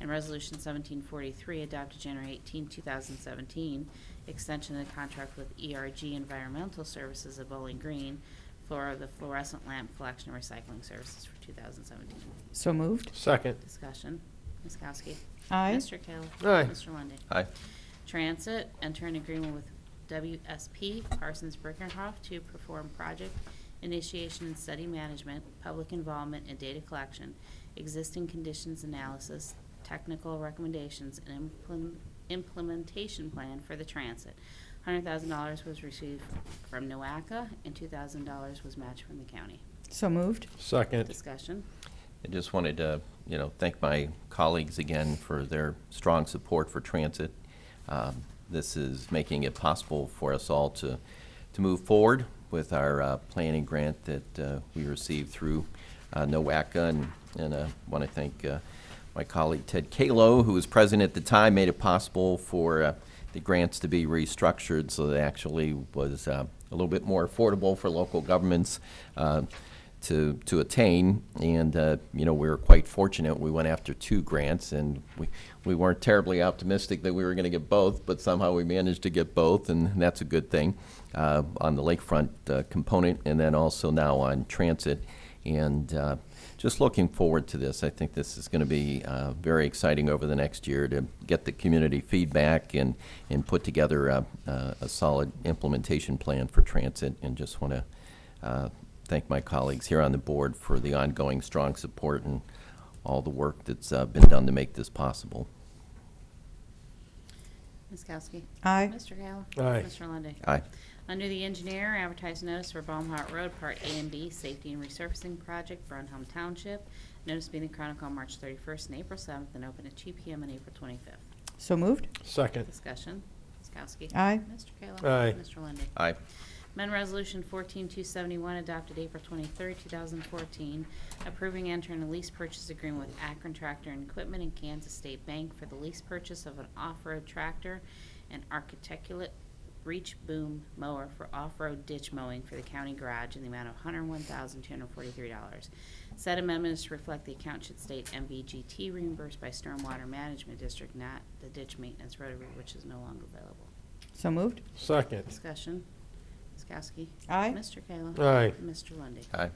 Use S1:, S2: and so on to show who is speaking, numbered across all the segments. S1: and Resolution 1743, adopted January 18, 2017, extension of the contract with ERG Environmental Services of Bowling Green for the fluorescent lamp collection and recycling services for 2017.
S2: So moved.
S3: Second.
S1: Discussion. Ms. Kowski.
S2: Aye.
S1: Mr. Kayla.
S3: Aye.
S1: Mr. Lundy.
S4: aye,
S1: Transit, enter an agreement with WSP Parsons Brinckerhoff to perform project initiation and study management, public involvement and data collection, existing conditions analysis, technical recommendations, and implement- implementation plan for the transit. $100,000 was received from NOACA, and $2,000 was matched from the county.
S2: So moved.
S3: Second.
S1: Discussion.
S4: I just wanted to, you know, thank my colleagues again for their strong support for transit. Um, This is making it possible for us all to, to move forward with our uh, planning grant that uh, we received through uh, NOACA. And- And I want to thank uh, my colleague Ted Kalo, who was president at the time, made it possible for uh, the grants to be restructured so that actually was uh, a little bit more affordable for local governments uh, to, to attain. And, uh, you know, we were quite fortunate. We went after two grants and we, we weren't terribly optimistic that we were going to get both, but somehow we managed to get both and that's a good thing uh, on the lakefront uh, component and then also now on transit. And uh, just looking forward to this. I think this is going to be uh, very exciting over the next year to get the community feedback and, and put together a, a a solid implementation plan for transit. And just want to uh, thank my colleagues here on the board for the ongoing strong support and all the work that's uh, been done to make this possible.
S1: Ms. Kowski.
S2: Aye.
S1: Mr. Kayla.
S3: Aye.
S1: Mr. Lundey.
S4: Aye.
S1: Under the engineer, advertise notice for Baumhart Road, Part A and B, Safety and Resurfacing Project, Brunhelm Township. Notice being in Chronicle on March 31st and April 7th, and open at 2 PM on April 25th.
S2: So moved.
S3: Second.
S1: Discussion, Ms. Kowski.
S2: Aye.
S1: Mr. Kayla.
S3: Aye.
S1: Mr. Lundey.
S4: Aye.
S1: Amendment Resolution 14271, adopted April 23rd, 2014, approving enter and lease purchase agreement with Akron Tractor and Equipment and Kansas State Bank for the lease purchase of an off-road tractor and architeculate reach boom mower for off-road ditch mowing for the county garage in the amount of $101,243. Said amendment is to reflect the account should state MVGT reimbursed by Stormwater Management District, not the ditch maintenance rotary, which is no longer available.
S2: So moved.
S3: Second.
S1: Discussion. Ms. Kowski.
S2: Aye.
S1: Mr. Kayla.
S3: Aye.
S1: Mr. Lundy.
S4: Aye.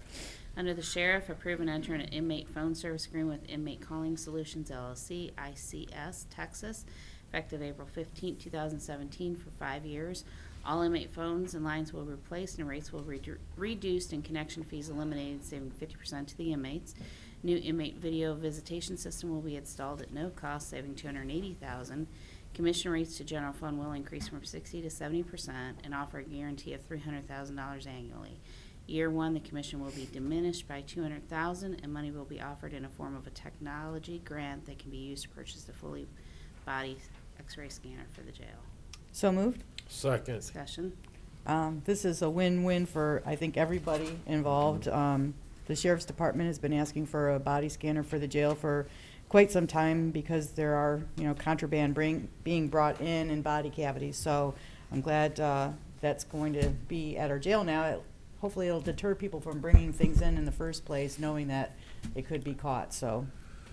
S1: Under the Sheriff, approve and enter an inmate phone service agreement with Inmate Calling Solutions LLC, ICS, Texas, effective April 15, 2017, for five years. All inmate phones and lines will be replaced and rates will be redu- reduced and connection fees eliminated, saving 50% to the inmates. New inmate video visitation system will be installed at no cost, saving 280000 Commission rates to general fund will increase from 60 to 70% and offer a guarantee of $300,000 annually. Year one, the commission will be diminished by two hundred thousand, and money will be offered in a form of a technology grant that can be used to purchase the fully body x-ray scanner for the jail.
S2: So moved.
S3: Second.
S1: Discussion,
S2: Um, This is a win-win for, I think, everybody involved. Um, The Sheriff's Department has been asking for a body scanner for the jail for quite some time because there are, you know, contraband bring- being brought in in body cavities. So I'm glad uh, that's going to be at our jail now. It- Hopefully, it'll deter people from bringing things in in the first place, knowing that it could be caught. So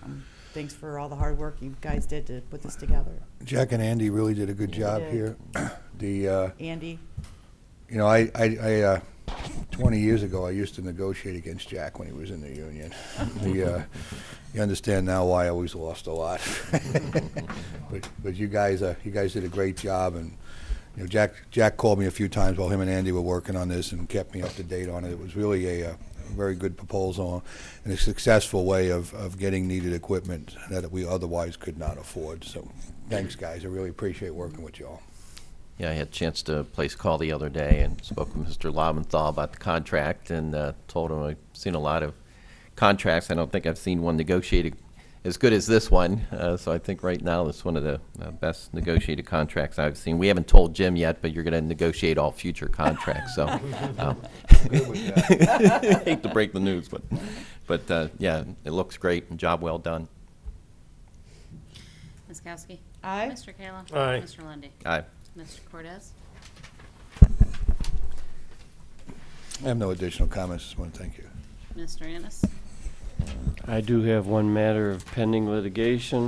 S2: um, thanks for all the hard work you guys did to put this together.
S5: Jack and Andy really did a good job
S2: did.
S5: here. The, uh,
S2: Andy?
S5: you know, I, I, I, uh, 20 years ago, I used to negotiate against Jack when he was in the union. The, uh, you understand now why I always lost a lot. But, but you guys, uh, you guys did a great job and, you know, Jack, Jack called me a few times while him and Andy were working on this and kept me up to date on it. It was really a, uh very good proposal and a successful way of, of getting needed equipment that we otherwise could not afford. So thanks, guys. I really appreciate working with y'all.
S4: Yeah, I had a chance to place a call the other day and spoke with Mr. Lobenthal about the contract and uh, told him I've seen a lot of contracts. I don't think I've seen one negotiated as good as this one. Uh, so I think right now it's one of the uh, best negotiated contracts I've seen. We haven't told Jim yet, but you're going to negotiate all future contracts. So um, hate to break the news, but but uh, yeah, it looks great and job well done.
S1: Ms. Kowski.
S2: Aye.
S1: Mr. Kayla.
S3: Aye.
S1: Mr. Lundy.
S4: Aye.
S1: Mr. Cortez.
S5: I have no additional comments. Just want to thank you.
S1: Mr. Ennis.
S3: I do have one matter of pending litigation.